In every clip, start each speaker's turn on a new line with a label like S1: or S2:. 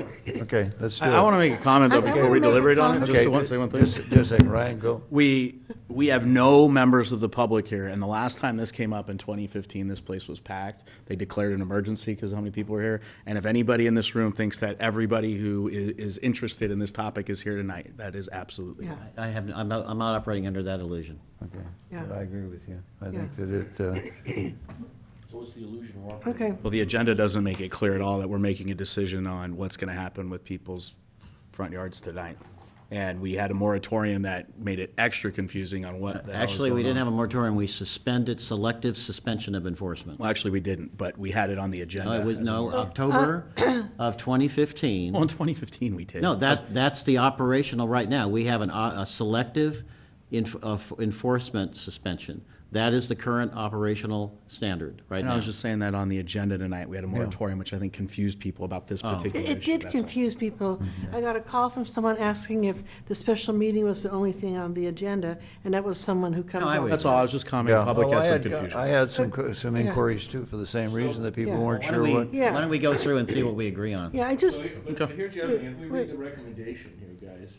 S1: Okay, let's do it.
S2: I want to make a comment though
S3: I- I
S2: before
S3: wanna
S2: we
S3: make a
S2: deliberate on it,
S3: comment.
S2: just
S1: Okay,
S2: to one, say one thing.
S1: Just just a second, Ryan, go.
S2: We, we have no members of the public here, and the last time this came up in 2015, this place was packed. They declared an emergency because how many people were here? And if anybody in this room thinks that everybody who i- is interested in this topic is here tonight, that is absolutely
S3: Yeah.
S2: not.
S4: I have, I'm not, I'm not operating under that illusion.
S1: Okay,
S3: Yeah.
S1: I agree with you. I
S3: Yeah.
S1: think that it, uh,
S4: What's the illusion we're
S3: Okay,
S2: Well, the agenda doesn't make it clear at all that we're making a decision on what's going to happen with people's front yards tonight. And we had a moratorium that made it extra confusing on what the hell is
S4: Actually, we
S2: going
S4: didn't
S2: on.
S4: have a moratorium, we suspended selective suspension of enforcement.
S2: Well, actually, we didn't, but we had it on the agenda.
S4: No, it was,
S2: as a Oh,
S4: no,
S2: moratorium.
S4: October
S3: Uh,
S4: of twenty fifteen.
S2: Well, in 2015, we did.
S4: No, that, that's the operational right now. We have an, o- a selective enf- of enforcement suspension. That is the current operational standard right
S2: And I
S4: now.
S2: was just saying that on the agenda tonight, we had a moratorium, which I think confused people about this
S4: Oh.
S2: particular issue.
S3: it did
S2: that's all.
S3: confuse people.
S4: Mm-hmm.
S3: I got a call from someone asking if the special meeting was the only thing on the agenda, and that was someone who comes
S4: No, I
S3: on.
S4: would-
S2: That's all, I was just commenting,
S1: yeah.
S2: the public
S1: Well, I
S2: had some
S1: had- I
S2: confusion.
S1: had some, co- some
S3: Yeah.
S1: inquiries too, for the same reason that people
S3: Yeah.
S1: weren't
S4: Why don't
S1: sure
S4: we,
S1: what.
S3: Yeah.
S4: why don't we go through and see what we agree on?
S3: Yeah, I just,
S5: So, But but here's the other thing, if we
S3: Wait.
S5: read the recommendation here, guys,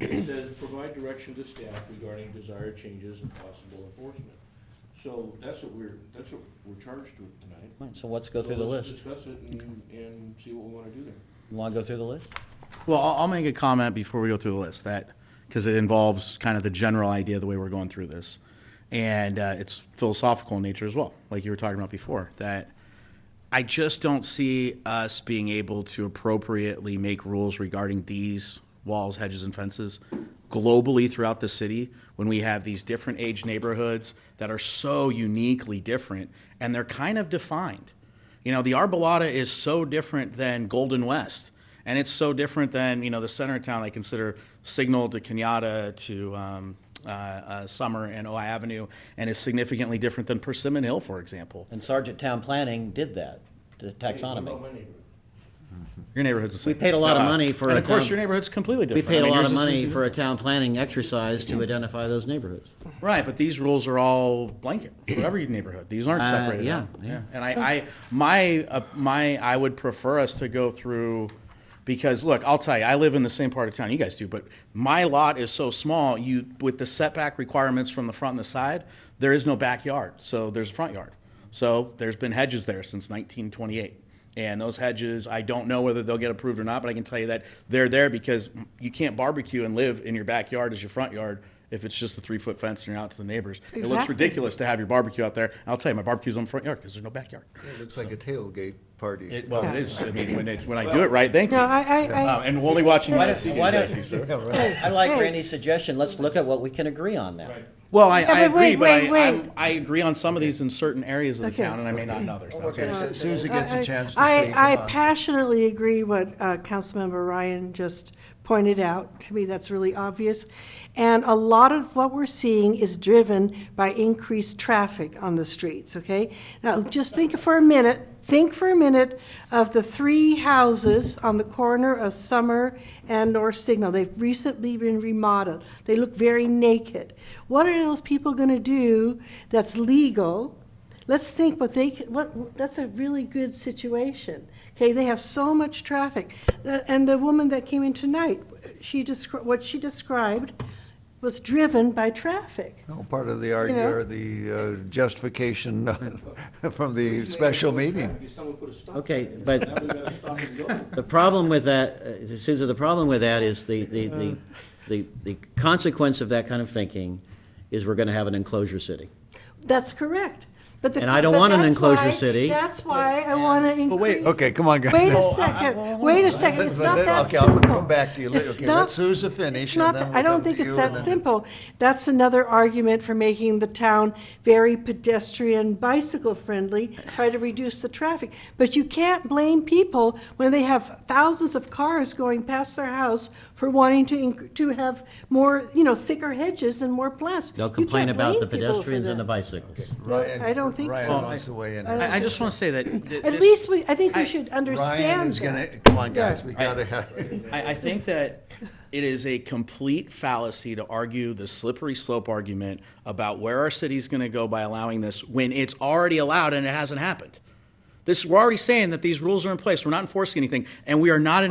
S5: it says, provide direction to staff regarding desired changes and possible enforcement. So that's what we're, that's what we're charged with tonight.
S4: Fine, So let's go through the
S5: So let's
S4: list.
S5: Discuss it and, and see what we wanna do there.
S4: Want to go through the list?
S2: Well, I'll, I'll make a comment before we go through the list, that, because it involves kind of the general idea, the way we're going through this. And uh, it's philosophical in nature as well, like you were talking about before, that I just don't see us being able to appropriately make rules regarding these walls, hedges, and fences globally throughout the city when we have these different age neighborhoods that are so uniquely different and they're kind of defined. You know, the Arbolada is so different than Golden West, and it's so different than you know the center of town. I consider Signal to Kenyatta to um, uh, uh, Summer and Ojai Avenue, and is significantly different than Persimmon Hill, for example.
S4: And Sergeant Town Planning did that, the
S5: Hey, what about
S4: taxonomy.
S5: my neighborhood?
S2: Your neighborhood's the same.
S4: We paid a lot of
S2: Uh,
S4: money for
S2: And
S4: a
S2: of course,
S4: town-
S2: your neighborhood's completely
S4: We
S2: different. I
S4: paid a
S2: mean,
S4: lot
S2: yours
S4: of
S2: is-
S4: money for a town planning exercise to identify those neighborhoods.
S2: Right, but these rules are all blanket for every neighborhood. These aren't
S4: Uh,
S2: separated.
S4: yeah,
S2: out.
S4: yeah.
S2: And I, I, my, uh, my, I would prefer us to go through, because look, I'll tell you, I live in the same part of town you guys do, but my lot is so small, you, with the setback requirements from the front and the side, there is no backyard, so there's a front yard. So there's been hedges there since nineteen twenty-eight. And those hedges, I don't know whether they'll get approved or not, but I can tell you that they're there because you can't barbecue and live in your backyard as your front yard if it's just a three foot fence and you're out to the neighbors. It looks
S3: Exactly.
S2: ridiculous to have your barbecue out there. And I'll tell you, my barbecue's on the front yard because there's no backyard.
S1: It looks like a tailgate party.
S2: It, well, it is. I mean, when, it, when I do it right, thank you.
S3: no, I, I,
S2: Uh,
S3: I,
S2: and we're only watching
S4: Why
S2: you guys,
S4: don't-
S2: you
S4: why
S2: guys
S4: don't-
S2: actually, sir.
S4: I like
S3: Hey.
S4: Randy's suggestion, let's look at what we can agree on now.
S5: Right.
S2: Well, I, I
S3: Yeah, but
S2: agree,
S3: wait,
S2: but I,
S3: wait, wait.
S2: I'm- I agree on some of these in certain areas of the
S3: Okay.
S2: town, and I may not in others. That's
S1: Okay,
S2: all.
S1: Su- Susan gets a chance to
S3: I,
S1: speak.
S3: I
S1: Come on.
S3: passionately agree what uh, Councilmember Ryan just pointed out. To me, that's really obvious. And a lot of what we're seeing is driven by increased traffic on the streets, okay? Now, just think for a minute, think for a minute of the three houses on the corner of Summer and North Signal. They've recently been remodeled. They look very naked. What are those people going to do that's legal Let's think what they, c- what, that's a really good situation. Okay, they have so much traffic. The- And the woman that came in tonight, she descri, what she described was driven by traffic.
S1: No, Part of the, arg-
S3: You know?
S1: or the uh, justification from the special meeting.
S5: If someone put a stop
S4: Okay,
S5: sign there,
S4: but-
S5: Now we gotta stop and go.
S4: The problem with that, uh, Susan, the problem with that is the, the, the, the the consequence of that kind of thinking is we're gonna have an enclosure city.
S3: That's correct. But the.
S4: And I don't
S3: but
S4: want an
S3: that's
S4: enclosure
S3: why-
S4: city.
S3: That's why I want to
S2: But wait,
S3: increase.
S1: okay, come on, guys.
S3: Wait
S1: No,
S3: a
S1: I- I-
S3: second, wait a second, it's not that
S1: Okay, I'll
S3: simple.
S1: come back to you later.
S3: It's
S1: Okay, let
S3: not-
S1: Sousa
S3: it's
S1: finish,
S3: not
S1: and then
S3: that-
S1: we'll
S3: I don't
S1: come to
S3: think it's
S1: you,
S3: that
S1: and then-
S3: simple. That's another argument for making the town very pedestrian, bicycle-friendly, try to reduce the traffic. But you can't blame people when they have thousands of cars going past their house for wanting to, inc- to have more, you know, thicker hedges and more plants.
S4: They'll
S3: You
S4: complain
S3: can't
S4: about
S3: blame
S4: the
S3: people for
S4: pedestrians and the
S3: that.
S4: bicycles.
S1: Ryan-
S3: I don't think so.
S1: Ryan wants to weigh in.
S2: I, I just want to say that. th-
S3: At
S2: this-
S3: least we, I think
S2: I-
S3: we should understand
S1: Ryan is
S3: that.
S1: gonna, come on, guys, we
S2: Yeah.
S1: gotta have.
S2: I, I think that it is a complete fallacy to argue the slippery slope argument about where our city's going to go by allowing this when it's already allowed and it hasn't happened. This, we're already saying that these rules are in place. We're not enforcing anything, and we are not in